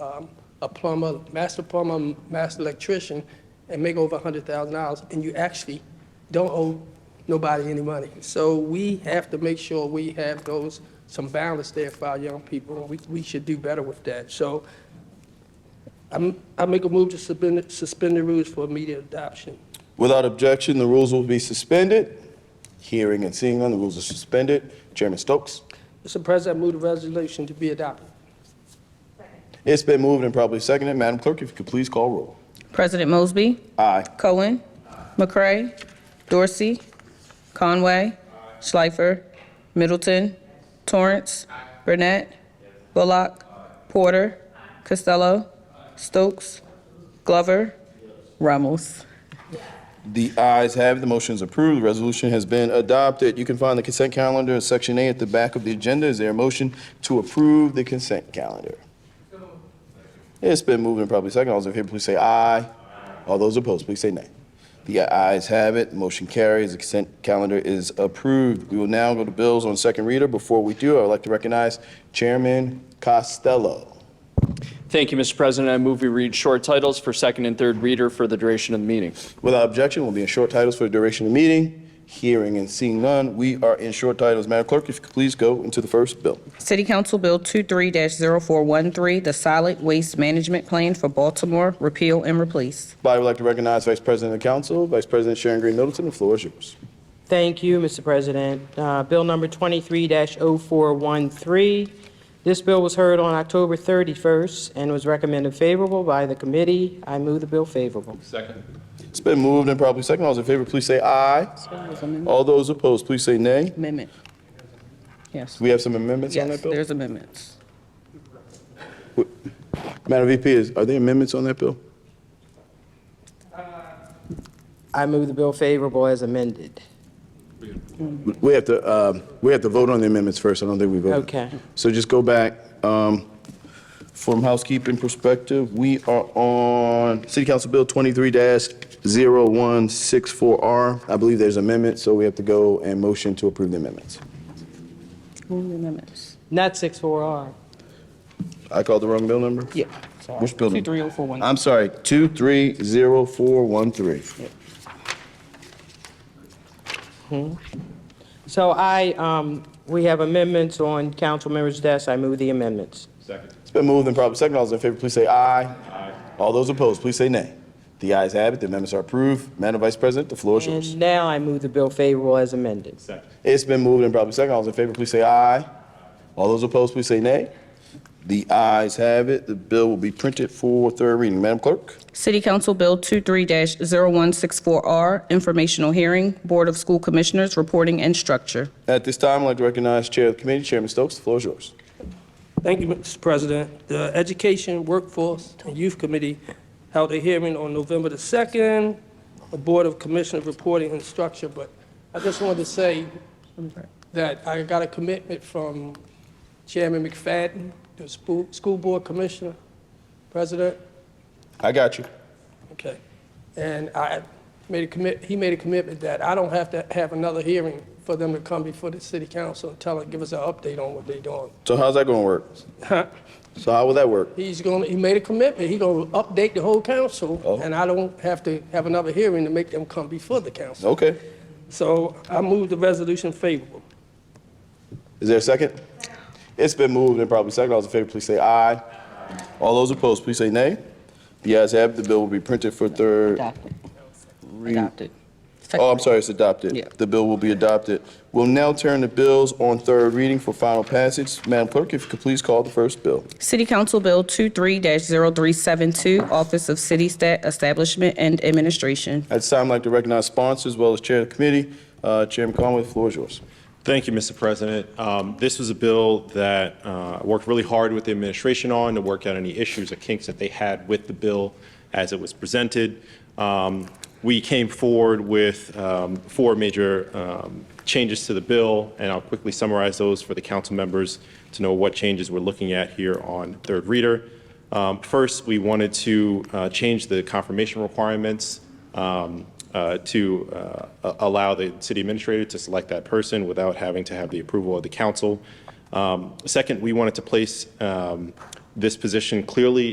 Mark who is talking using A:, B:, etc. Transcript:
A: um, a plumber, master plumber, master electrician, and make over $100,000, and you actually don't owe nobody any money. So we have to make sure we have those, some balance there for our young people. We we should do better with that. So I'm- I make a move to suspend suspend the rules for immediate adoption.
B: Without objection, the rules will be suspended. Hearing and seeing none, the rules are suspended. Chairman Stokes?
A: Mr. President, I move the resolution to be adopted.
B: It's been moved and probably seconded. Madam Clerk, if you could please call roll.
C: President Mosby.
B: Aye.
C: Cohen. McCray. Dorsey. Conway. Schleifer. Middleton. Torrance. Burnett. Bullock. Porter. Costello. Stokes. Glover. Ramos.
B: The ayes have it. The motion is approved. The resolution has been adopted. You can find the consent calendar in Section A at the back of the agenda. Is there a motion to approve the consent calendar? It's been moved and probably seconded. All those in favor, please say aye. All those opposed, please say nay. The ayes have it. The Motion carries. The consent calendar is approved. We will now go to bills on second reader. Before we do, I would like to recognize Chairman Costello.
D: Thank you, Mr. President. I move we read short titles for second and third reader for the duration of the meeting.
B: Without objection, we'll be in short titles for the duration of the meeting. Hearing and seeing none, we are in short titles. Madam Clerk, if you could please go into the first bill.
C: City Council Bill 23-0413, the Solid Waste Management Plan for Baltimore, repeal and replace.
B: Body would like to recognize Vice President of the Council, Vice President Sharon Green Middleton. The floor is yours.
E: Thank you, Mr. President. Uh, Bill number 23-0413. This bill was heard on October 31st and was recommended favorable by the committee. I move the bill favorable.
B: It's been moved and probably second. All those in favor, please say aye. All those opposed, please say nay.
C: Amendment. Yes.
B: We have some amendments on
C: Yes,
B: that bill?
C: there's amendments.
B: Madam VP, is- are there amendments on that bill?
E: I move the bill favorable as amended.
B: We have to, um, we have to vote on the amendments first. I don't think we voted.
E: Okay.
B: So just go back. um, From housekeeping perspective, we are on City Council Bill 23-0164R. I believe there's amendments, so we have to go and motion to approve the amendments.
C: Move the amendments.
E: Not 64R.
B: I called the wrong bill number?
E: Yeah.
B: Which bill number?
E: 230413.
B: I'm sorry, 230413.
E: So I, um, we have amendments on council members' desks. I move the amendments.
B: It's been moved and probably second. All those in favor, please say aye. Aye. All those opposed, please say nay. The ayes have it. The amendments are approved. Madam Vice President, the floor is yours.
E: And now I move the bill favorable as amended.
B: It's been moved and probably second. All those in favor, please say aye. All those opposed, please say nay. The ayes have it. The bill will be printed for third reading. Madam Clerk?
C: City Council Bill 23-0164R, Informational Hearing, Board of School Commissioners Reporting and Structure.
B: At this time, I'd like to recognize Chair of the Committee, Chairman Stokes. The floor is yours.
A: Thank you, Mr. President. The Education, Workforce, and Youth Committee held a hearing on November the 2nd, the Board of Commissioners reporting and structure, but I just wanted to say that I got a commitment from Chairman McFadden, the school school board commissioner, president,
B: I got you.
A: Okay. And I made a commit, he made a commitment that I don't have to have another hearing for them to come before the city council and tell, give us an update on what they're doing.
B: So how's that going to work? So how will that work?
A: He's gonna, he made a commitment, he gonna update the whole council,
B: Oh.
A: and I don't have to have another hearing to make them come before the council.
B: Okay.
A: So I move the resolution favorable.
B: Is there a second? It's been moved and probably second. All those in favor, please say aye. All those opposed, please say nay. The ayes have it. The bill will be printed for third.
C: Adopted.
B: read-
C: Adopted.
B: Oh, I'm sorry, it's adopted.
C: Yeah.
B: The bill will be adopted. We'll now turn to bills on third reading for final passage. Madam Clerk, if you could please call the first bill.
C: City Council Bill 23-0372, Office of City Stat Establishment and Administration.
B: At this time, I'd like to recognize sponsors as well as Chair of the Committee. Uh, Chairman Conway, the floor is yours.
F: Thank you, Mr. President. Um, This was a bill that uh, I worked really hard with the administration on to work out any issues or kinks that they had with the bill as it was presented. Um, We came forward with um, four major um, changes to the bill, and I'll quickly summarize those for the council members to know what changes we're looking at here on third reader. Um, First, we wanted to uh, change the confirmation requirements um, uh, to uh, a- allow the city administrator to select that person without having to have the approval of the council. Um, Second, we wanted to place um, This position clearly